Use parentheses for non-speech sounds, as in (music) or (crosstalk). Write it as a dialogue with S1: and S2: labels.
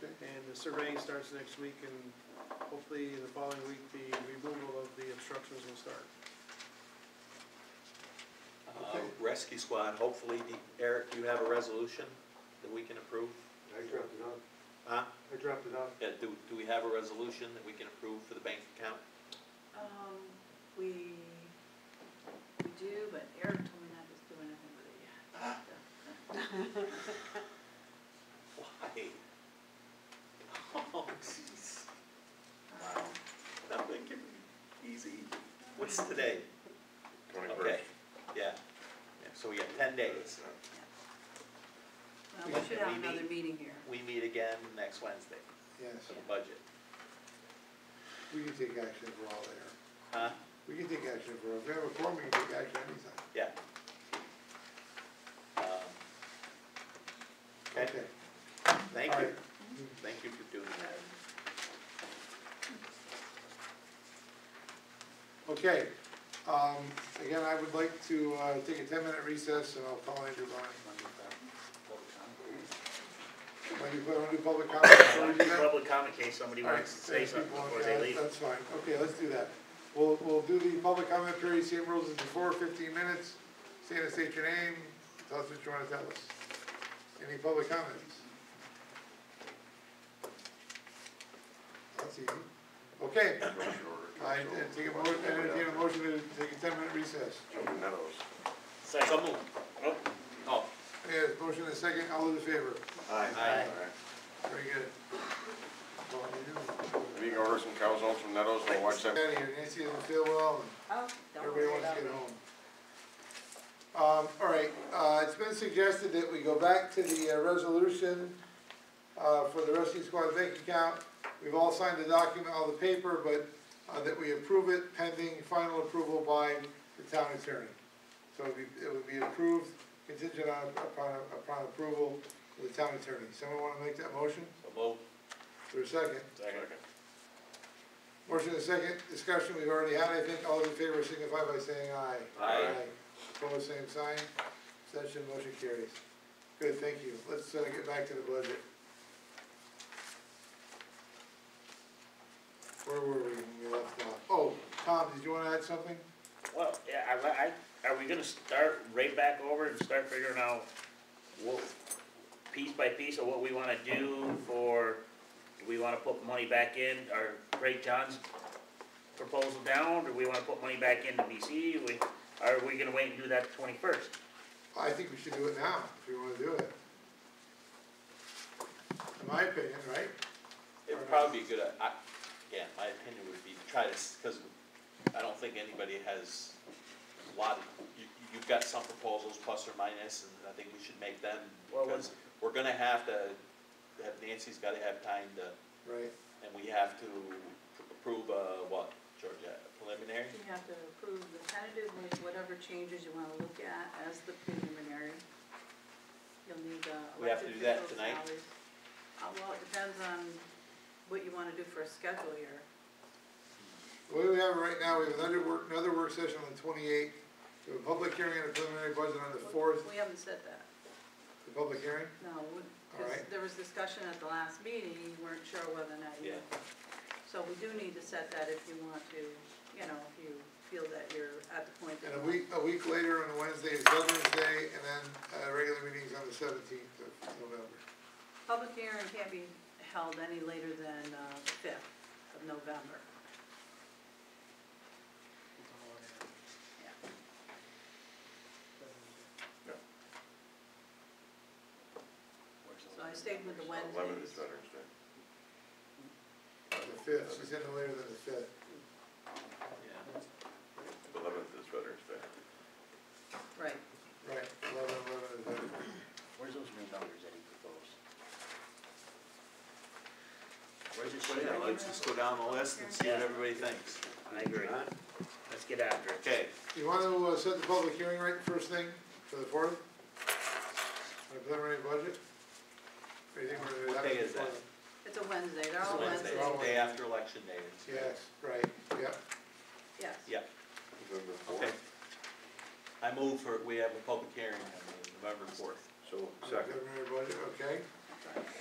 S1: the surveying starts next week, and hopefully in the following week, the removal of the obstructions will start.
S2: Uh, Rescue squad, hopefully, the- Eric, do you have a resolution that we can approve?
S3: I dropped it off,
S2: Huh?
S3: I dropped it off.
S2: Yeah, do, do we have a resolution that we can approve for the bank account?
S4: Um, we, we do, but Eric told me not to do anything with it
S5: (gasps)
S4: yet.
S2: Why? (laughs) Oh, jeez.
S4: Um,
S2: I'm thinking, easy. What's today? Okay,
S6: Twenty-first.
S2: yeah. Yeah, So we got ten days.
S4: Well, we should have
S2: We meet-
S4: another meeting here.
S2: We meet again next Wednesday
S5: Yes,
S2: for the budget.
S5: we can take action if we're all there.
S2: Huh?
S5: We can take action if we're, if we have a forum, we can take action anytime.
S2: Yeah. Um, Okay, thank
S5: All
S2: you.
S5: right.
S2: Thank you for doing that.
S5: Okay, um, again, I would like to, uh, take a ten-minute recess, and I'll call Andrew Ryan. When you put on new public comment, before we do that?
S7: Public comment case, somebody
S5: All right,
S7: wants to say
S5: thanks,
S7: something
S5: people.
S7: before
S5: Yeah,
S7: they leave.
S5: That's fine, okay, let's do that. We'll, we'll do the public comment period, same rules as before, fifteen minutes. Stand and state your name, tell us what you wanna tell us. Any public comments? That's easy. Okay, I take a motion, entertain a motion to take a ten minute recess.
S6: Joe Meadows.
S2: So moved. Oh,
S5: Yes, motion and second, all those in favor?
S2: Aye.
S5: Very good. Well, you
S6: Maybe you can order some cows home from Meadows and watch
S5: do.
S6: that.
S5: Out of here, Nancy doesn't feel well, and
S4: Oh, don't
S5: Everybody
S4: worry
S5: wants
S4: about
S5: to
S4: it.
S5: get home. Um, all right, uh, it's been suggested that we go back to the uh, resolution, uh, for the rescue squad bank account. We've all signed the document, all the paper, but, uh, that we approve it pending final approval by the town attorney. So it would be, it would be approved contingent on, upon, upon approval with the town attorney. Someone wanna make that motion?
S2: so moved.
S5: For a second?
S7: Second.
S5: Motion is second, discussion we've already had, I think, all those in favor signify by saying aye.
S2: Aye.
S5: Opposed, same sign, Abstention. motion carries. Good, thank you, let's, uh, get back to the budget. Where were we when we left off? Oh, Tom, did you wanna add something?
S7: Well, yeah, I, li- I, are we gonna start right back over and start figuring out what, piece by piece of what we wanna do for, do we wanna put money back in, or break John's proposal down, or we wanna put money back into BC, we, are we gonna wait and do that twenty-first?
S5: I think we should do it now, if you wanna do it. In my opinion, right?
S2: It would probably be a good, I, yeah, my opinion would be to try to, because I don't think anybody has a lot, of- you, you've got some proposals, plus or minus, and I think we should make them,
S7: Well,
S2: because we're gonna have to, have Nancy's gotta have time to,
S5: Right,
S2: and we have to approve, uh, what, George, uh, preliminary?
S4: You have to approve the tentative, with whatever changes you wanna look at as the preliminary. You'll need the
S2: We have to
S4: elected
S2: do that
S4: officials'
S2: tonight?
S4: salaries. Uh, well, it depends on what you wanna do for a schedule here.
S5: the way we have it right now, we have another work, another work session on the twenty-eighth, we have a public hearing on the preliminary budget on the fourth,
S4: We haven't said that.
S5: the public hearing?
S4: No,
S5: All
S4: because
S5: right.
S4: there was discussion at the last meeting, you weren't sure whether or not you.
S2: Yeah.
S4: So we do need to set that if you want to, you know, if you feel that you're at the point that.
S5: And a week, a week later on a Wednesday is Veterans Day, and then, uh, regular meetings on the seventeenth of November.
S4: Public hearing can't be held any later than uh, the fifth of November. So I stayed with the
S6: Eleven is
S4: Wednesdays.
S6: Veterans Day.
S5: The fifth, she said no later than the fifth.
S2: Yeah.
S6: Eleventh is Veterans Day.
S4: Right.
S5: Right, eleven, eleven is Veterans. Day.
S7: Where's those new numbers that he proposed? Where's it showing?
S2: Yeah, let's just go down the list and see what
S7: Yeah.
S2: everybody thinks.
S7: I agree,
S2: Huh?
S7: let's get after it.
S2: Okay,
S5: You wanna, uh, set the public hearing right first thing for the fourth? On the preliminary budget? Or you think we're gonna do that?
S2: What day is that?
S4: It's a Wednesday, they're
S2: it's
S4: all
S2: Wednesday,
S4: Wednesdays.
S5: Wednesday.
S2: day after election day.
S5: Yes, right, yeah.
S4: Yes.
S2: Yeah.
S6: November
S2: Okay.
S6: fourth.
S2: I move for, we have a public hearing on November fourth.
S6: So,
S5: on the
S6: second.
S5: Preliminary budget, okay.
S4: That's all right.